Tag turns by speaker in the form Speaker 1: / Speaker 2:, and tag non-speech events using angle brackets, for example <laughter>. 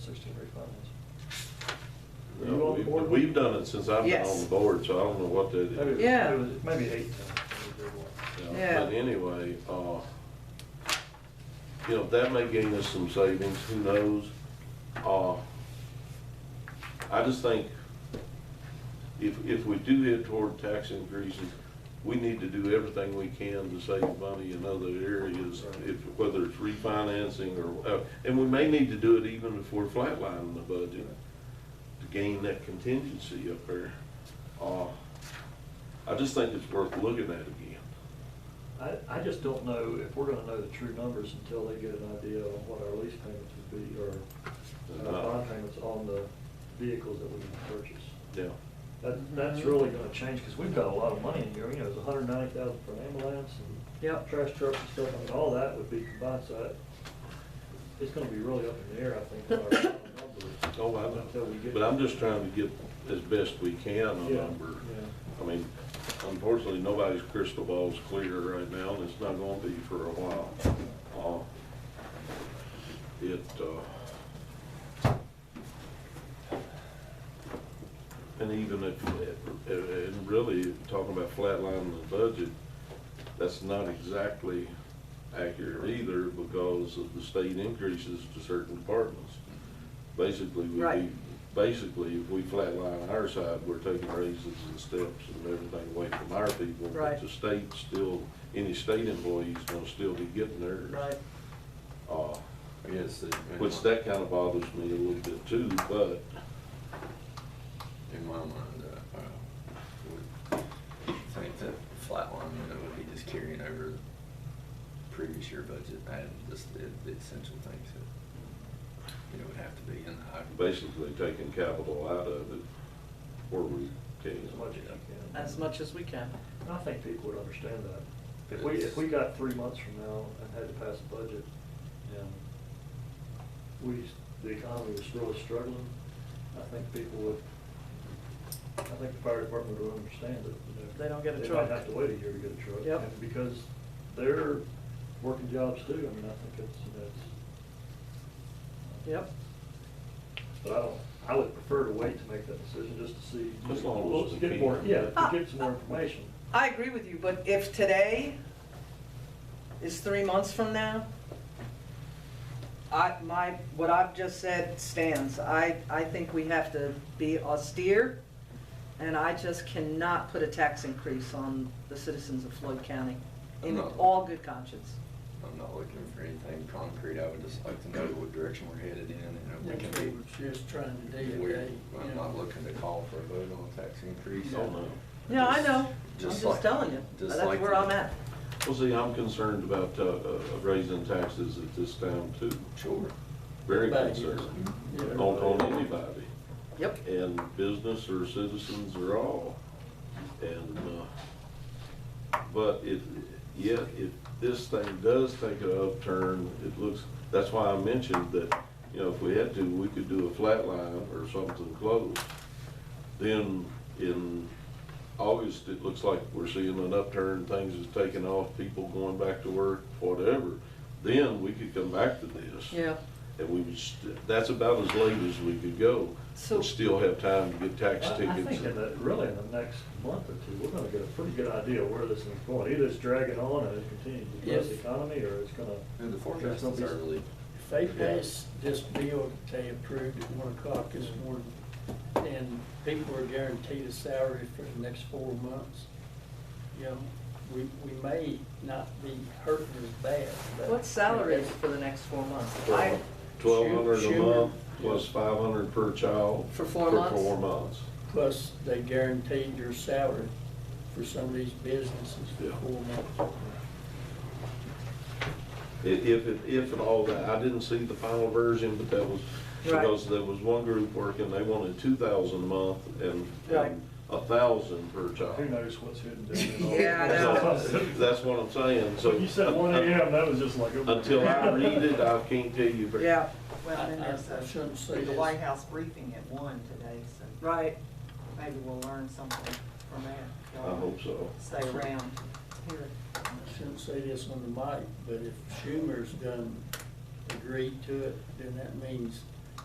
Speaker 1: to refinance.
Speaker 2: Were you
Speaker 3: No,
Speaker 2: on the
Speaker 3: we've-
Speaker 2: board?
Speaker 3: We've done it since I've been on
Speaker 4: Yes.
Speaker 3: the board, so I don't know what that
Speaker 2: Maybe it
Speaker 3: is.
Speaker 2: was-
Speaker 4: Yeah.
Speaker 2: it was Maybe eight times.
Speaker 4: Yeah.
Speaker 3: But anyway, uh, you know, that may gain us some savings, who knows? Uh, I just think if, if we do head toward tax increases, we need to do everything we can to save money in other areas, if, whether it's refinancing or, uh, and we may need to do it even if we're flatlining the budget to gain that contingency up there. Uh, I just think it's worth looking at again.
Speaker 1: I, I just don't know if we're gonna know the true numbers until they get an idea on what our lease payments would be,
Speaker 2: Uh,
Speaker 1: or our bond payments on the vehicles that we can purchase.
Speaker 3: Yeah,
Speaker 4: Mm-hmm.
Speaker 1: That, that's really gonna change, because we've got a lot of money in here, you know, it's a hundred ninety thousand for an ambulance and
Speaker 4: Yep.
Speaker 1: trash trucks and stuff, I mean, all that would be combined, so that- it's gonna be really up in the air, I think,
Speaker 2: <coughs>
Speaker 1: on our numbers.
Speaker 3: oh, I
Speaker 1: Until we
Speaker 3: know,
Speaker 1: get-
Speaker 3: but I'm just trying to get as best we can a
Speaker 1: Yeah,
Speaker 3: number.
Speaker 1: yeah.
Speaker 3: I mean, unfortunately, nobody's crystal ball's clear right now, and it's not gonna be for a while. Uh, It, uh, and even if, and really, talking about flatlining the budget, that's not exactly accurate either because of the state increases to certain departments. Basically, we,
Speaker 4: Right.
Speaker 3: basically, if we flatline our side, we're taking raises and steps and everything away from our people.
Speaker 4: Right.
Speaker 3: But the state still, any state employee's gonna still be getting theirs.
Speaker 4: Right.
Speaker 3: Uh,
Speaker 5: Yes. in
Speaker 3: which
Speaker 5: my-
Speaker 3: that kinda bothers me a little bit too, but
Speaker 5: In my mind, uh, I would think that flat line, you know, would be just carrying over previous year budget and just the, the essential things that, you know, would have to be in the. hybrid.
Speaker 3: basically taking capital out of it where we can.
Speaker 1: As much as you can.
Speaker 4: As much as we can.
Speaker 1: I think people would understand that. If we, if we got three months from now and had to pass a budget, and we, the economy was really struggling, I think people would, I think the fire department would understand that, you know.
Speaker 4: They don't get a
Speaker 1: They might
Speaker 4: truck.
Speaker 1: have to wait a year to get a truck.
Speaker 4: Yep.
Speaker 1: And Because they're working jobs too, I mean, I think it's, that's.
Speaker 4: Yep.
Speaker 1: But I don't, I would prefer to wait to make that decision, just to see.
Speaker 3: As long as we
Speaker 1: Get more,
Speaker 3: can.
Speaker 1: yeah, to get some more information.
Speaker 4: Ah. I agree with you, but if today is three months from now, I, my, what I've just said stands. I, I think we have to be austere, and I just cannot put a tax increase on the citizens of Floyd County in
Speaker 5: No.
Speaker 4: all good conscience.
Speaker 5: I'm not looking for anything concrete. I would just like to know what direction we're headed in and if we
Speaker 6: That's what
Speaker 5: can
Speaker 6: we're just trying to
Speaker 5: be.
Speaker 6: do
Speaker 5: We're,
Speaker 6: today.
Speaker 5: I'm not looking to call for a vote on a tax increase.
Speaker 3: Oh, no.
Speaker 4: No, I
Speaker 5: Just-
Speaker 4: know. I'm
Speaker 5: just
Speaker 4: just
Speaker 5: like-
Speaker 4: telling you.
Speaker 5: just
Speaker 4: That's
Speaker 5: like-
Speaker 4: where I'm at.
Speaker 3: Well, see, I'm concerned about uh, uh, raising taxes at this time too.
Speaker 5: Sure.
Speaker 3: Very
Speaker 6: Everybody is.
Speaker 3: concerned.
Speaker 6: Yeah,
Speaker 3: On,
Speaker 6: everybody
Speaker 3: on
Speaker 6: is.
Speaker 3: anybody.
Speaker 4: Yep.
Speaker 3: And business or citizens or all. And, uh, but if, yeah, if this thing does take an upturn, it looks, that's why I mentioned that, you know, if we had to, we could do a flat line or something close. Then in August, it looks like we're seeing an upturn, things is taking off, people going back to work, whatever. Then we could come back to this.
Speaker 4: Yeah.
Speaker 3: And we would, st- that's about as late as we could go.
Speaker 4: So-
Speaker 3: We'd still have time to get tax
Speaker 1: I- I
Speaker 3: tickets.
Speaker 1: think in the, really in the next month or two, we're gonna get a pretty good idea where this is going. Either it's dragging on and it continues to depress the
Speaker 6: Yes.
Speaker 1: economy, or it's gonna.
Speaker 5: And the forecast
Speaker 1: there's
Speaker 5: is
Speaker 1: gonna be-
Speaker 5: early.
Speaker 6: If they pass this bill that they approved at one o'clock this morning, and people are guaranteed a salary for the next four months, you know, we, we may not be hurting as bad, but.
Speaker 4: What salary is for the next four months? I,
Speaker 3: Twelve hundred a
Speaker 6: Schumer-
Speaker 3: month plus five hundred per child.
Speaker 4: For four
Speaker 3: For
Speaker 4: months?
Speaker 3: four months.
Speaker 6: Plus, they guaranteed your salary for some of these businesses
Speaker 3: Yeah.
Speaker 6: for four months.
Speaker 3: I- If, if, if and all that, I didn't see the final version, but that was,
Speaker 4: Right.
Speaker 3: because there was one group working, they wanted two thousand a month and,
Speaker 4: Right.
Speaker 3: and a thousand per
Speaker 1: Who
Speaker 3: child.
Speaker 1: knows what's hidden down there? <laughs>
Speaker 4: Yeah, I know.
Speaker 3: So, That's what I'm saying, so.
Speaker 1: When you said one AM, that was just like. oh my
Speaker 3: Until I
Speaker 1: God.
Speaker 3: read it, I can't tell you. very-
Speaker 4: yeah,
Speaker 7: Well, then
Speaker 6: I- I-
Speaker 7: there's
Speaker 6: I shouldn't
Speaker 7: a,
Speaker 6: say
Speaker 7: the
Speaker 6: this.
Speaker 7: White House briefing at one today, so
Speaker 4: right.
Speaker 7: maybe we'll learn something from that.
Speaker 3: I hope so.
Speaker 7: Stay around to hear it.
Speaker 6: I shouldn't say this on the mic, but if Schumer's done, agreed to it, then that means